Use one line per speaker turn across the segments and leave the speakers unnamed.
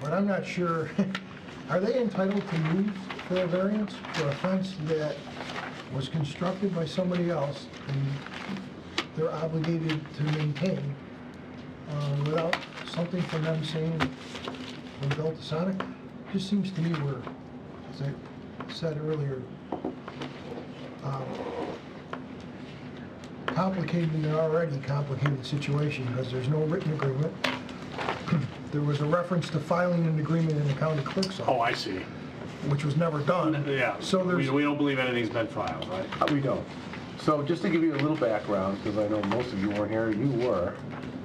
but I'm not sure, are they entitled to use their variance for a fence that was constructed by somebody else and they're obligated to maintain uh, without something from them saying, we built the Sonic? Just seems to me we're, as I said earlier, um, complicating an already complicated situation because there's no written agreement. There was a reference to filing an agreement in the county clerk's
Oh,
office,
I see.
which was never done.
Yeah.
So there's.
We we don't believe anything's been filed, right?
We don't. So just to give you a little background, because I know most of you weren't here, you were,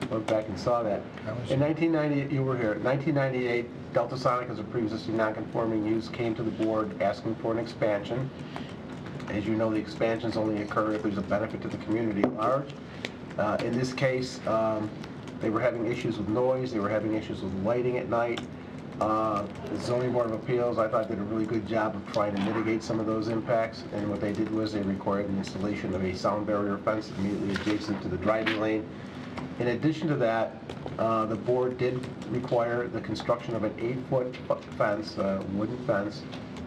went back and saw that.
I was-
In 1998, you were here, 1998, Delta Sonic as a pre-existing non-conforming use came to the board asking for an expansion. As you know, the expansions only occur if there's a benefit to the community at large. Uh, In this case, um, they were having issues with noise, they were having issues with lighting at night. Uh, The zoning board of appeals, I thought, did a really good job of trying to mitigate some of those impacts, and what they did was they required the installation of a sound barrier fence immediately adjacent to the driving lane. In addition to that, uh, the board did require the construction of an eight-foot fu- fence, uh, wooden fence,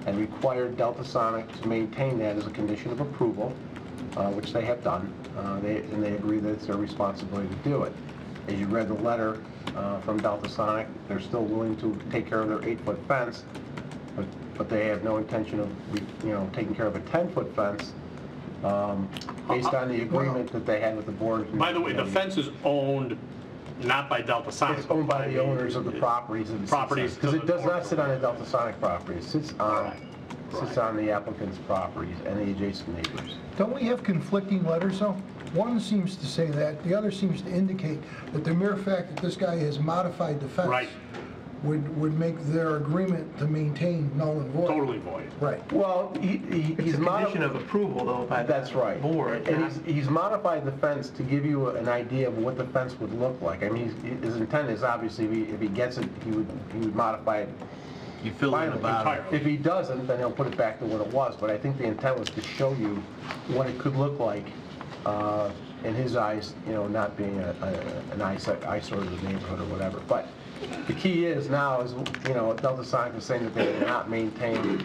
and required Delta Sonic to maintain that as a condition of approval, uh, which they have done. Uh, they- And they agree that it's their responsibility to do it. As you read the letter uh, from Delta Sonic, they're still willing to take care of their eight-foot fence, but but they have no intention of, you know, taking care of a 10-foot fence um, based on the agreement that they had with the board.
Uh, By the way, the fence is owned not by Delta Sonic.
It's owned by the owners of the properties that it sits on.
Properties
Because
to
it
the
does
north
not
of
sit on
that.
a Delta Sonic property, it sits on,
Right.
sits
Right.
on the applicant's properties and the adjacent neighbors.
Don't we have conflicting letters, though? One seems to say that, the other seems to indicate that the mere fact that this guy has modified the fence
Right.
would, would make their agreement to maintain null and void.
Totally void.
Right.
Well, he, he-
It's
he's
a condition
modified,
of approval, though, by the
that's right.
board.
And
not-
he's, he's modified the fence to give you an idea of what the fence would look like. I mean, he's- his intent is obviously, if he- if he gets it, he would, he would modify it
You fill in the
finally.
bottom.
Entirely.
If he doesn't, then he'll put it back to what it was, but I think the intent was to show you what it could look like uh, in his eyes, you know, not being a- a- an eyesore eyesore to the neighborhood or whatever. But the key is now is, you know, Delta Sonic is saying that they will not maintain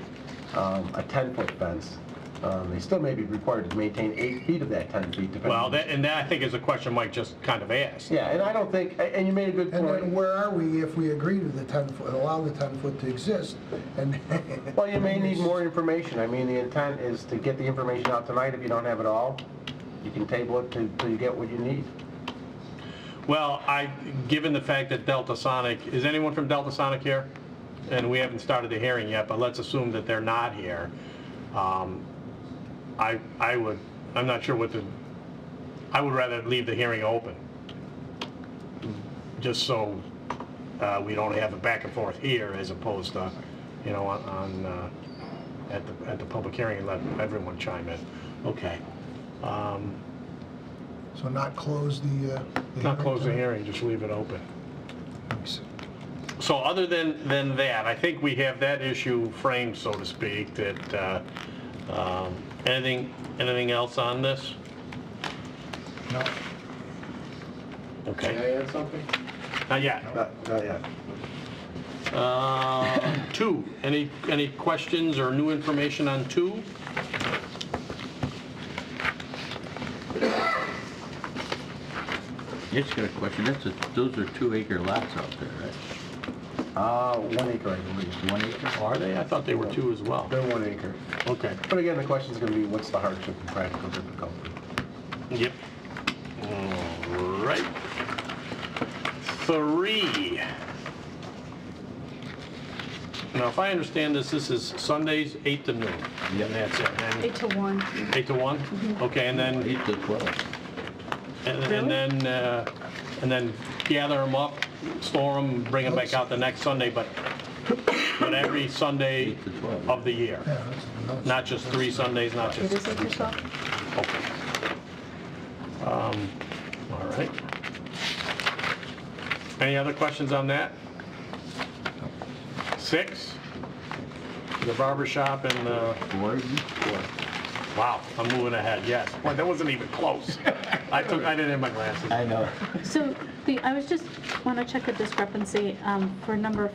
um, a 10-foot fence. Um, They still may be required to maintain eight feet of that 10 feet depending.
Well, that, and that I think is a question Mike just kind of asked.
Yeah, and I don't think, a- and you made a good
And then
point.
where are we if we agree to the 10-foot, allow the 10-foot to exist? And
Well, you may need more information. I mean, the intent is to get the information out tonight. If you don't have it all, you can table it till till you get what you need.
Well, I, given the fact that Delta Sonic, is anyone from Delta Sonic here? And we haven't started the hearing yet, but let's assume that they're not here. Um, I, I would, I'm not sure what the, I would rather leave the hearing open. Just so uh, we don't have a back and forth here as opposed to, you know, on- on, uh, at the, at the public hearing and let everyone chime in. Okay. Um,
So not close the, uh...
Not close the
tonight?
hearing, just leave it open.
Thanks.
So other than, than that, I think we have that issue framed, so to speak, that, uh, um, anything, anything else on this?
No.
Okay,
add something?
not yet.
Not not yet.
Uh, Two, any, any questions or new information on two?
Just got a question, that's a, those are two acre lots out there, right?
Uh, one acre, I believe.
One acre?
Are they? I thought they were two as well.
They're one acre.
Okay,
But again, the question's gonna be, what's the hardship and practical difficulty?
yep. All right. Three. Now, if I understand this, this is Sundays, 8 to noon.
Yep.
And that's it. And
Eight to one.
Eight to one? Okay, and then,
Eight to 12.
and and then, uh, and then gather them up, store them, bring them back out the next Sunday, but, but every Sunday
Eight to 12.
of the year,
Yeah, that's- that's-
not just three Sundays, not
It
just,
is eight to twelve?
okay. Um, All right. Any other questions on that? Six, the barber shop and the
Board?
Wow, I'm moving ahead, yes. Boy, that wasn't even close. I took, I didn't have my glasses.
I know.
So the, I was just, want to check a discrepancy um, for number